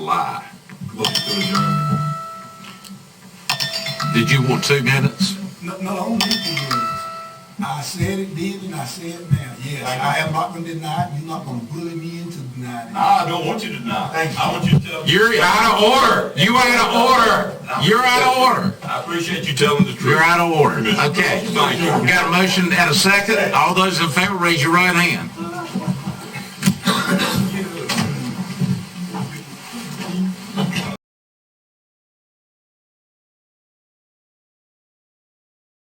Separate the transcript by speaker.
Speaker 1: vote to adjourn.
Speaker 2: Did you want two minutes?
Speaker 3: No, no, I don't need two minutes. I said it did and I say it now. Yes, I am not gonna deny it. You're not gonna bully me into denying it.
Speaker 1: I don't want you to deny. I want you to tell.
Speaker 2: You're out of order. You out of order. You're out of order.
Speaker 1: I appreciate you telling the truth.
Speaker 2: You're out of order. Okay. We got a motion and a second. All those in favor, raise your right hand.